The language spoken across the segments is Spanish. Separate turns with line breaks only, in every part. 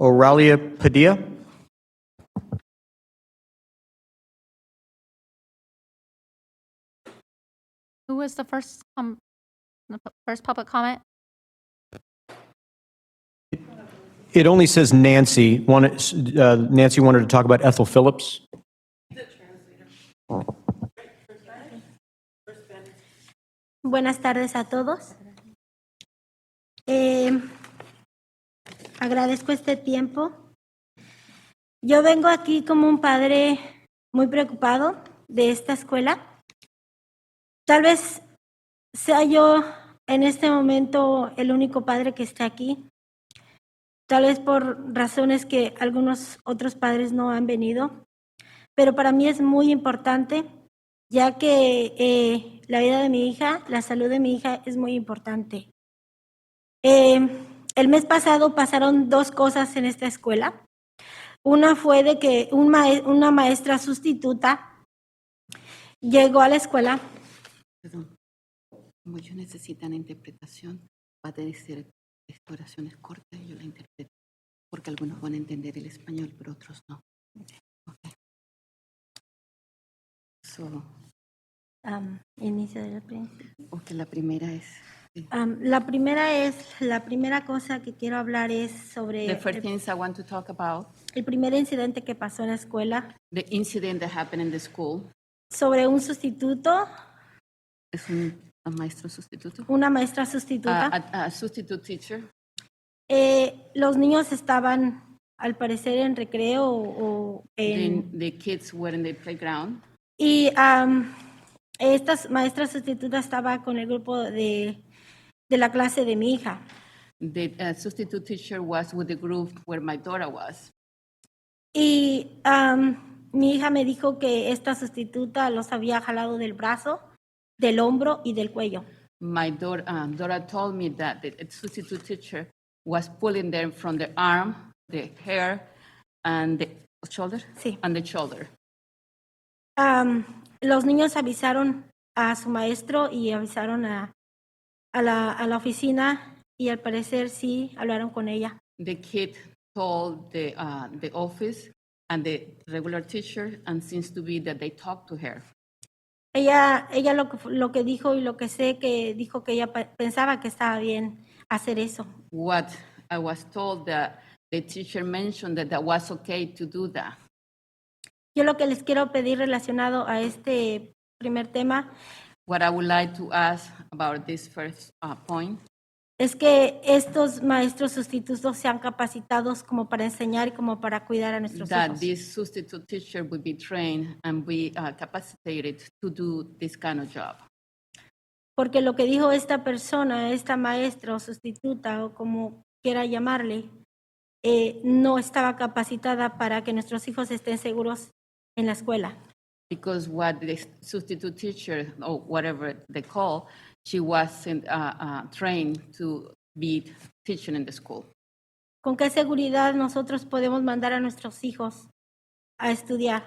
Oralia Padilla.
Who was the first, um, the pu- first public comment?
It only says Nancy. Wanted- uh, Nancy wanted to talk about Ethel Phillips.
Buenas tardes a todos. Eh, agradezco este tiempo. Yo vengo aquí como un padre muy preocupado de esta escuela. Tal vez sea yo en este momento el único padre que está aquí. Tal vez por razones que algunos otros padres no han venido. Pero para mí es muy importante ya que eh, la vida de mi hija, la salud de mi hija es muy importante. Eh, el mes pasado pasaron dos cosas en esta escuela. Una fue de que un mae- una maestra sustituta llegó a la escuela.
Perdón. Como ellos necesitan interpretación, va a tener que ser este, oraciones cortas y yo la interpreto. Porque algunos van a entender el español, pero otros no. Ok. So,
Am, inicio del principio.
ok, la primera es. sí.
Am, la primera es, la primera cosa que quiero hablar es sobre
The first
el,
things I want to talk about
el primer incidente que pasó en la escuela,
the incident that happened in the school.
sobre un sustituto,
Es un un maestro sustituto.
una maestra sustituta.
A, a- a substitute teacher.
Eh, los niños estaban, al parecer, en recreo o, o en-
Then the kids were in the playground.
Y am, esta maestra sustituta estaba con el grupo de, de la clase de mi hija.
The uh, substitute teacher was with the group where my daughter was.
Y am, mi hija me dijo que esta sustituta los había jalado del brazo, del hombro y del cuello.
My daughter, um, Dora told me that the substitute teacher was pulling them from the arm, the hair, and the shoulder,
Sí.
and the shoulder.
Am, los niños avisaron a su maestro y avisaron a, a la, a la oficina y al parecer sí hablaron con ella.
The kid told the uh, the office and the regular teacher, and seems to be that they talked to her.
Ella, ella lo, que fu- lo que dijo y lo que sé que dijo que ella pe- pensaba que estaba bien hacer eso.
What I was told that the teacher mentioned that that was okay to do that.
Yo lo que les quiero pedir relacionado a este primer tema
What I would like to ask about this first uh, point
es que estos maestros sustitutos sean capacitados como para enseñar y como para cuidar a nuestros
that
hijos.
this substitute teacher will be trained and be uh, capacitated to do this kind of job.
Porque lo que dijo esta persona, esta maestra o sustituta o como quiera llamarle, eh, no estaba capacitada para que nuestros hijos estén seguros en la escuela.
Because what the substitute teacher, or whatever they call, she wasn't uh, uh, trained to be teaching in the school.
¿Con qué seguridad nosotros podemos mandar a nuestros hijos a estudiar?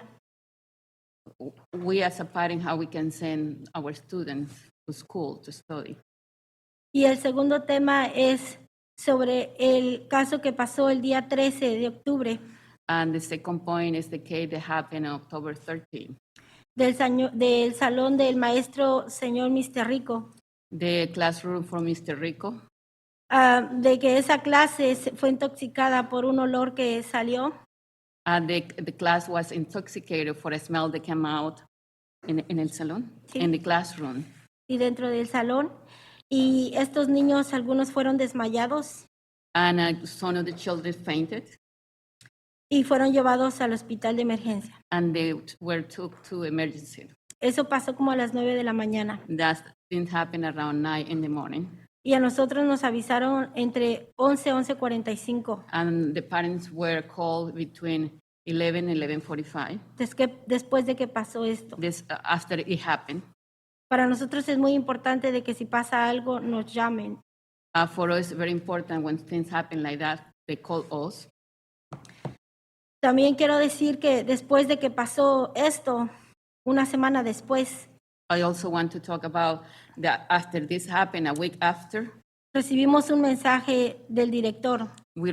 We as a parent, how we can send our students to school to study.
Y el segundo tema es sobre el caso que pasó el día 13 de octubre
And the second point is the case that happened on October 13.
del, saño- del salón del maestro señor Mr. Rico,
The classroom for Mr. Rico,
ah, de que esa clase se- fue intoxicada por un olor que salió
Uh, the, the class was intoxicated for a smell that came out in, in el salon,
Sí.
in the classroom.
y dentro del salón. Y estos niños, algunos fueron desmayados
And uh, some of the children fainted,
y fueron llevados al hospital de emergencia.
and they were took to emergency.
Eso pasó como a las 9 de la mañana.
That didn't happen around nine in the morning.
Y a nosotros nos avisaron entre 11 y 11.45.
And the parents were called between 11 and 11.45
des- que- después de que pasó esto.
this, uh, after it happened.
Para nosotros es muy importante de que si pasa algo nos llamen.
Uh, for us, very important when things happen like that, they call us.
También quiero decir que después de que pasó esto, una semana después,
I also want to talk about that after this happened, a week after,
recibimos un mensaje del director
we